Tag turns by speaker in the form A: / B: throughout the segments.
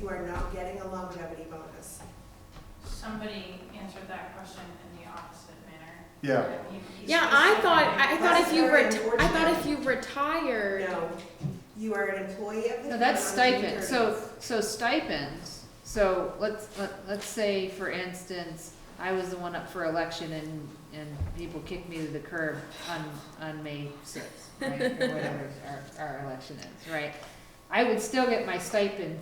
A: you are not getting a longevity bonus.
B: Somebody answered that question in the opposite manner.
C: Yeah,
B: You- you
D: Yeah, I thought, I I thought if
A: That's
D: you
A: very
D: reti- I thought if
A: unfortunate.
D: you retired,
A: No, you are an employee of the.
E: No, that's
A: town on June
E: stipend,
A: 30th.
E: so, so stipends, so let's, let, let's say, for instance, I was the one up for election and, and people kicked me to the curb on, on May sixth, right, or whatever our, our election is, right? I would still get my stipend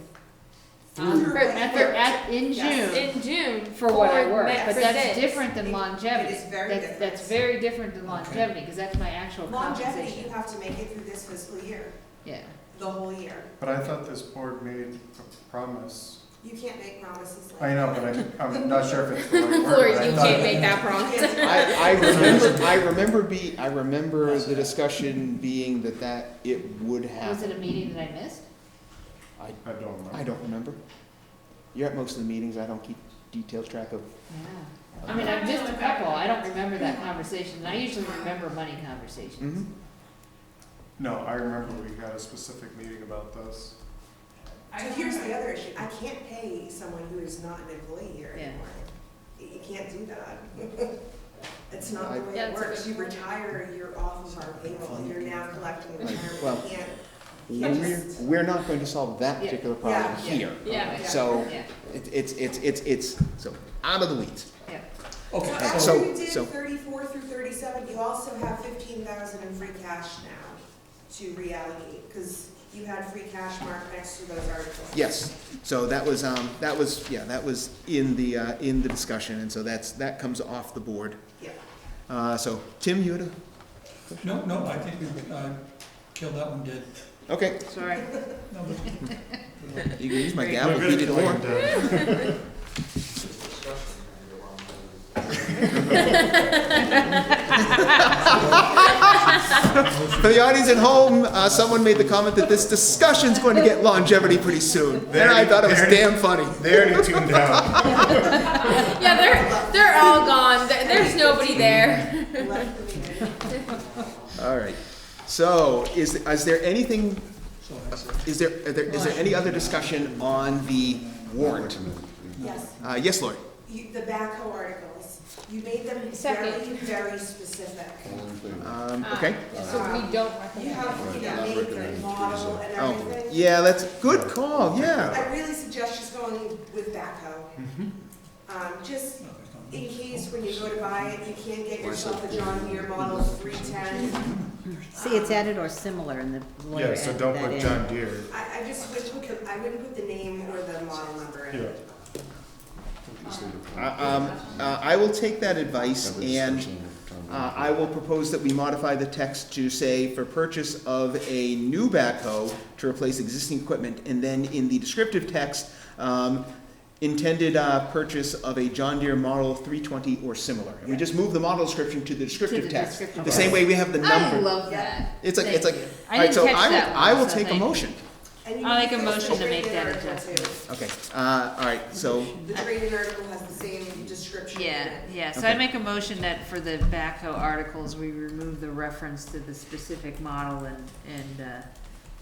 E: um,
A: Through what
E: for- at,
A: you
E: the-
A: worked.
E: at, in
D: Yes.
E: June,
D: in June.
E: for what I work,
D: that
E: but
D: percent.
E: that's different than
A: It-
E: longevity.
A: it is very
E: That's-
A: different.
E: That's very different than longevity, cause that's my actual
A: Longevity, you
E: compensation,
A: have to make it through this fiscal year,
E: yeah.
A: the whole year.
C: but I thought this board made a promise.
A: You can't make promises like.
C: I know, but I'm, I'm not sure if it's the right
D: Lori,
C: word. but I
D: you
C: thought-
D: can't make that promise.
A: that.
F: I, I remember, I remember be, I remember the discussion being that that, it would
E: Was it
F: happen.
E: a meeting that I missed?
F: I,
C: I don't remember.
F: I don't remember. You're at most of the meetings, I don't keep detailed track of.
E: Yeah, I mean, I've missed a couple, I don't remember that conversation, and I usually remember money conversations.
F: Mhm.
C: No, I remember we had a specific meeting about this.
B: I
A: So
B: don't
A: here's the
B: remember.
A: other issue, I can't pay someone who is not an employee here
E: Yeah.
A: anymore. You you can't do that. It's not the way
D: Yeah,
A: it
D: it's a
A: works,
D: good
A: you
D: point.
A: retire, you're off of our payroll, you're now collecting
F: Right,
A: retirement,
F: well,
A: you can't.
F: We're, we're not going to solve that
E: Yeah.
F: particular problem
A: Yeah.
F: here.
D: Yeah.
F: okay?
A: Yeah.
F: So,
C: Mm-hmm.
E: Yeah,
F: it- it's, it's, it's, it's, so, out of the weeds.
E: yeah.
A: So
F: Okay,
A: after you
F: so,
A: did
F: so,
A: thirty-four through thirty-seven, you also have fifteen thousand in free cash now to reallocate, because you had free cash marked next to those articles.
F: yes, so that was, um, that was, yeah, that was in the, uh, in the discussion, and so that's, that comes off the board.
A: Yeah.
F: Uh, so, Tim, you had a,
G: No, no, I think we, I killed that one dead.
F: okay,
E: Sorry,
G: No, but-
F: you can use my
E: We're
F: gavel,
C: We're
F: if
C: gonna
F: you did
C: kill
F: more.
C: him dead.
F: For the audience at home, uh, someone made the comment that this discussion's going to get longevity pretty soon, and I thought it was
C: There it is.
F: damn funny.
C: They already tuned out.
D: Yeah, they're, they're all gone, There- there's nobody there.
A: Left the meeting.
F: All right. So, is, is there anything,
G: so I said,
F: is there, are there, is there any other discussion on the warrant?
A: Yes,
F: Uh, yes, Lori?
A: you, the backhoe articles, you made them
D: Second.
A: very, very specific.
F: Um, okay.
D: So we don't
A: You
D: recommend.
A: have, you know, make the model and
F: Oh,
A: everything.
F: yeah, that's, good call, yeah.
A: I really suggest just going with backhoe.
F: Mm-hmm.
A: Um, just
G: no, it's not.
A: in case when you go to buy it, you can't get yourself a John Deere Model three ten.
H: See, it's added or similar in the lawyer
C: Yeah, so
H: added
C: don't
H: that
C: put
H: in.
C: John Deere.
A: I, I just wish we could, I wouldn't put the name or the model number in.
C: Yeah.
F: Uh, Um, uh, I will take that advice and, uh, I will propose that we modify the text to say for purchase of a new backhoe to replace existing equipment, and then in the descriptive text, um, intended, uh, purchase of a John Deere Model three twenty or similar. And we just move the model description to the descriptive
E: the
F: text,
E: descriptive
F: the same way we have the number.
E: I love that.
F: It's like, it's like,
E: Thank you. I
F: alright,
E: didn't
F: so
E: catch
F: I
E: that
F: will, I
E: one,
F: will
E: so
F: take a
E: thank you.
F: motion.
A: And you
E: I'll make a
A: can fix the
E: motion to make
A: trade-in
E: that
A: article
E: adjustment.
A: too.
F: Okay, uh, alright, so,
A: The trade-in article has the same description. in
E: Yeah,
A: it.
E: yeah, so I
F: Okay.
E: make a motion that for the backhoe articles, we remove the reference to the specific model and, and,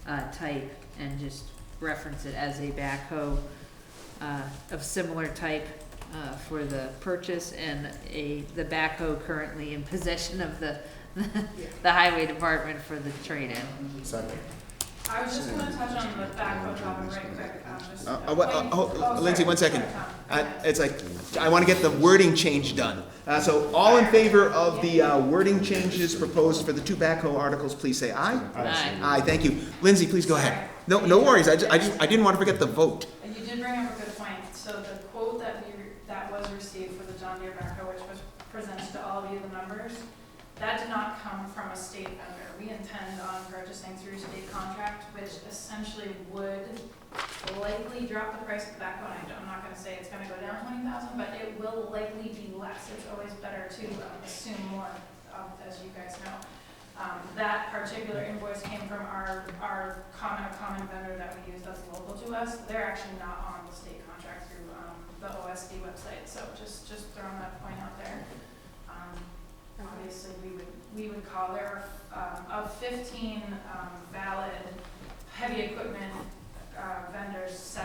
E: uh, uh, type, and just reference it as a backhoe, uh, of similar type, uh, for the purchase, and a, the backhoe currently in possession of the, the highway department for the trade-in.
C: Second.
B: I was just gonna touch on the backhoe topic right quick, um, just.
F: Uh, uh, what- uh, oh,
B: Oh, sorry.
F: Lindsay, one second.
B: Sorry, Tom.
F: uh,
B: Okay.
F: it's like, I wanna get the wording change done. Uh, so all in favor of the, uh, wording changes proposed for the two backhoe articles, please say aye.
E: Aye.
F: Aye, thank you. Lindsay, please go ahead. No, no worries, I ju- I just, I didn't wanna forget the vote.
B: And you did bring up a good point. So the quote that we, that was received for the John Deere backhoe, which was presented to all of you, the numbers, that did not come from a state vendor. We intend on purchasing through state contract, which essentially would likely drop the price of the backhoe. And I'm not gonna say it's gonna go down twenty thousand, but it will likely be less. It's always better to um, assume more, um, as you guys know. Um, that particular invoice came from our, our common, a common vendor that we use that's local to us. They're actually not on the state contract through, um, the OSD website, so just, just throwing that point out there. Um, obviously, we would, we would call there, um, of fifteen, um, valid heavy equipment, uh, vendors, seven